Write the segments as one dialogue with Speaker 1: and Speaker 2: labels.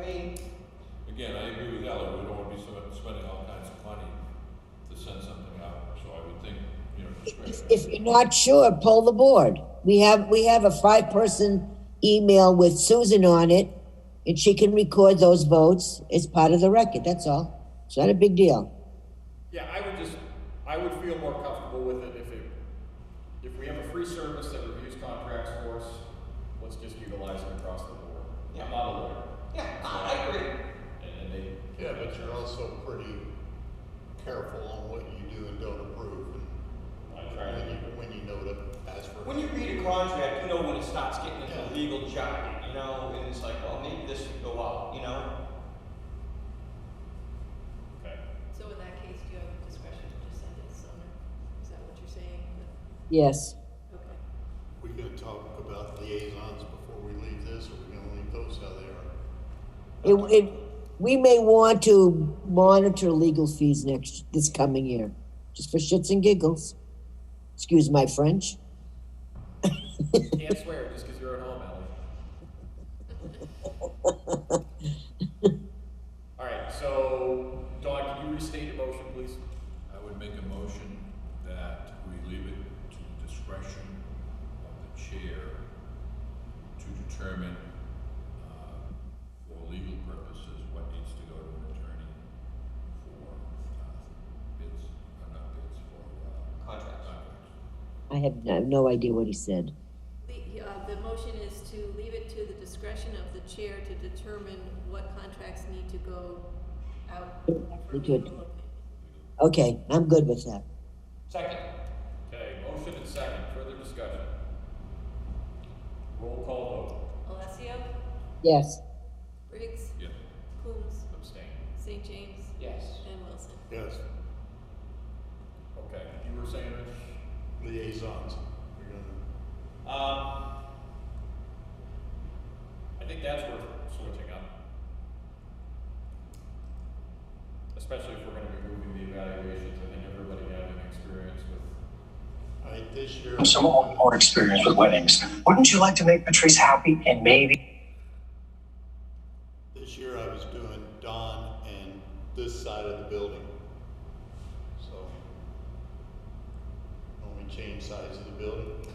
Speaker 1: mean,
Speaker 2: Again, I agree with Ellen, we don't wanna be sp- spending all kinds of money to send something out, so I would think, you know,
Speaker 3: If,
Speaker 2: discretion.
Speaker 3: if you're not sure, poll the board. We have, we have a five-person email with Susan on it, and she can record those votes as part of the record, that's all. It's not a big deal.
Speaker 4: Yeah, I would just, I would feel more comfortable with it if it, if we have a free service that reviews contracts for us, let's just utilize it across the board.
Speaker 1: Yeah.
Speaker 4: I'm not a lawyer,
Speaker 1: yeah, I I agree.
Speaker 4: and, and they,
Speaker 5: Yeah, but you're also pretty careful on what you do and don't approve,
Speaker 4: I try
Speaker 5: and
Speaker 4: to
Speaker 5: when you,
Speaker 4: keep it.
Speaker 5: when you know to ask for.
Speaker 1: When you read a contract, you know when it starts getting into
Speaker 5: Yeah.
Speaker 1: legal jargon, you know, and it's like, well, maybe this should go out, you know?
Speaker 4: Okay.
Speaker 6: So in that case, do you have discretion to just send it somewhere? Is that what you're saying?
Speaker 3: Yes.
Speaker 6: Okay.
Speaker 5: We gonna talk about liaisons before we leave this, or we gonna leave those how they are?
Speaker 3: It, it, we may want to monitor legal fees next, this coming year, just for shits and giggles. Excuse my French.
Speaker 4: Can't swear just because you're at home, Ally. All right, so Dawn, can you restate your motion, please?
Speaker 2: I would make a motion that we leave it to the discretion of the chair to determine, uh, for legal purposes, what needs to go to an attorney for, uh, bids, or not bids, for, uh,
Speaker 1: Contracts.
Speaker 2: contracts.
Speaker 3: I have no, no idea what he said.
Speaker 6: The, uh, the motion is to leave it to the discretion of the chair to determine what contracts need to go out for
Speaker 3: We could.
Speaker 6: legal opinion.
Speaker 3: Okay, I'm good with that.
Speaker 1: Second,
Speaker 4: Okay, motion and second, further discussion. Roll call
Speaker 6: Alessio,
Speaker 3: Yes.
Speaker 6: Briggs,
Speaker 2: Yeah,
Speaker 6: Coombs,
Speaker 4: vote, abstain.
Speaker 6: St. James,
Speaker 1: yes.
Speaker 6: and Wilson.
Speaker 5: Yes,
Speaker 4: Okay, you were saying, Rich?
Speaker 5: liaisons, we're gonna,
Speaker 4: Um, I think that's worth switching up. Especially if we're gonna be moving the evaluations, I think everybody had an experience with,
Speaker 5: I think this year.
Speaker 7: have some more more experience with weddings. Wouldn't you like to make Patrice happy and maybe
Speaker 5: This year I was doing Don and this side of the building. So, only change sides of the building.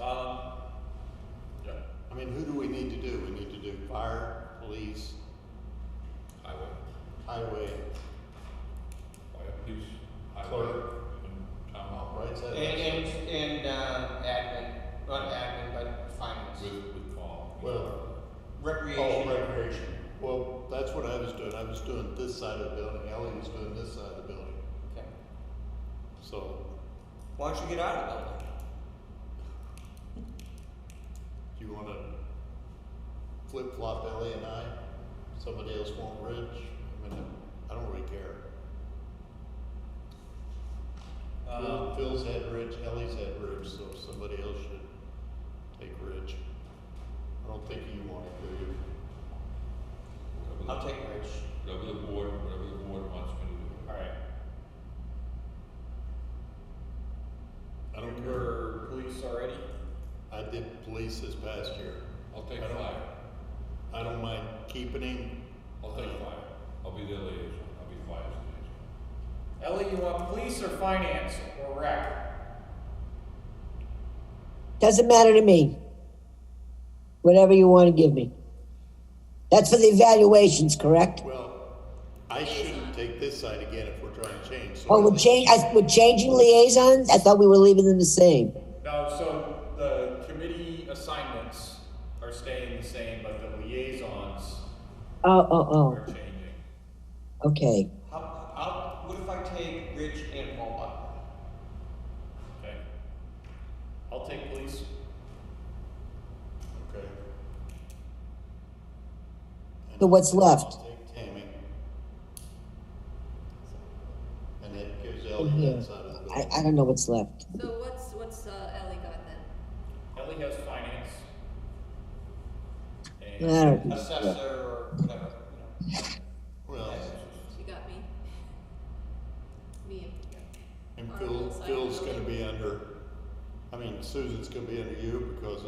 Speaker 4: um, yeah,
Speaker 5: I mean, who do we need to do? We need to do fire, police,
Speaker 2: highway,
Speaker 5: highway,
Speaker 2: fire, police, highway,
Speaker 5: Clerk.
Speaker 2: and town hall.
Speaker 5: right? Is that-
Speaker 1: And, and, and, um, admin, not admin, but finance,
Speaker 2: With, with Paul.
Speaker 5: Well, oh,
Speaker 1: recreation.
Speaker 5: recreation. Well, that's what I was doing. I was doing this side of the building. Ellie was doing this side of the building.
Speaker 1: Okay.
Speaker 5: So,
Speaker 1: Why don't you get out of that?
Speaker 5: do you want to flip flop Ellie and I? Somebody else want Rich? I mean, I don't really care. Phil-
Speaker 4: um,
Speaker 5: Phil's had Rich, Ellie's had Rich, so somebody else should take Rich. I don't think you want it, do you?
Speaker 2: Whatever the-
Speaker 1: I'll take Rich.
Speaker 2: Whatever the board, whatever the board wants me to do.
Speaker 4: alright.
Speaker 5: I don't
Speaker 4: You
Speaker 5: care.
Speaker 4: were police already?
Speaker 5: I did police this past year.
Speaker 2: I'll take
Speaker 5: I don't-
Speaker 2: fire,
Speaker 5: I don't mind keeping him.
Speaker 2: I'll take fire, I'll be their liaison, I'll be fire's liaison.
Speaker 4: Ellie, you want police or finance or rec?
Speaker 3: Doesn't matter to me. Whatever you want to give me. That's for the evaluations, correct?
Speaker 5: Well, I shouldn't take this side again if we're trying to change. so-
Speaker 3: Oh, we're change, I, we're changing liaisons? I thought we were leaving them the same.
Speaker 4: No, so the committee assignments are staying the same, but the liaisons
Speaker 3: Oh, oh,
Speaker 4: are changing.
Speaker 3: oh, okay.
Speaker 1: How, how, what if I take Rich and Paul Butler?
Speaker 4: Okay. I'll take police.
Speaker 5: Okay.
Speaker 3: So what's left?
Speaker 5: I'll take Tammy. And that gives
Speaker 3: In
Speaker 5: Ellie
Speaker 3: here.
Speaker 5: that side of the
Speaker 3: Mm-hmm. I,
Speaker 5: building.
Speaker 3: I don't know what's left.
Speaker 6: So what's, what's, uh, Ellie got then?
Speaker 4: Ellie has finance.
Speaker 3: I
Speaker 4: And
Speaker 3: don't know.
Speaker 1: Assessor or whatever, you know?
Speaker 5: Well,
Speaker 6: She got me. Me and
Speaker 5: and
Speaker 6: Our
Speaker 5: Phil,
Speaker 6: little side
Speaker 5: Phil's
Speaker 6: building.
Speaker 5: gonna be under, I mean, Susan's gonna be under you because